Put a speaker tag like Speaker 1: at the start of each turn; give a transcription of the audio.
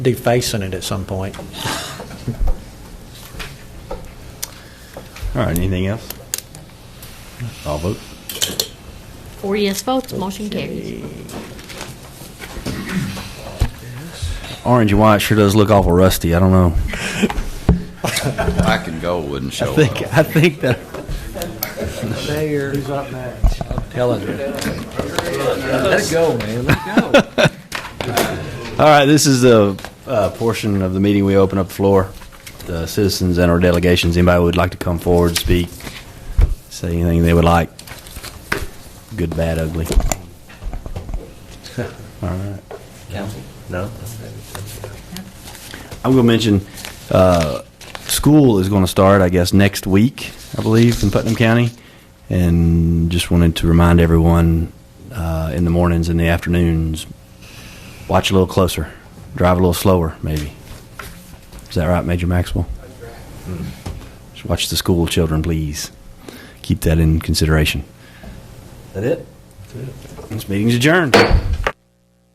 Speaker 1: defacing it at some point.
Speaker 2: All right, anything else? I'll vote.
Speaker 3: Four yes votes, motion carries.
Speaker 2: Orange and white sure does look awful rusty. I don't know.
Speaker 4: Black and gold wouldn't
Speaker 2: I
Speaker 4: show up.
Speaker 2: think, I think that,
Speaker 5: Mayor. Who's up next?
Speaker 1: Telling you.
Speaker 5: Let it go, man. Let it go.
Speaker 2: all right, this is the uh, portion of the meeting we open up the floor. The citizens and our delegations, anybody who would like to come forward, speak, say anything they would like, good, bad, ugly. All right.
Speaker 5: Council.
Speaker 2: No. I'm going to mention, uh, school is going to start, I guess, next week, I believe, in Putnam County. And just wanted to remind everyone, uh, in the mornings and the afternoons, watch a little closer, drive a little slower, maybe. Is that right, Major Maxwell? Just watch the school children, please. Keep that in consideration. That it? This meeting's adjourned.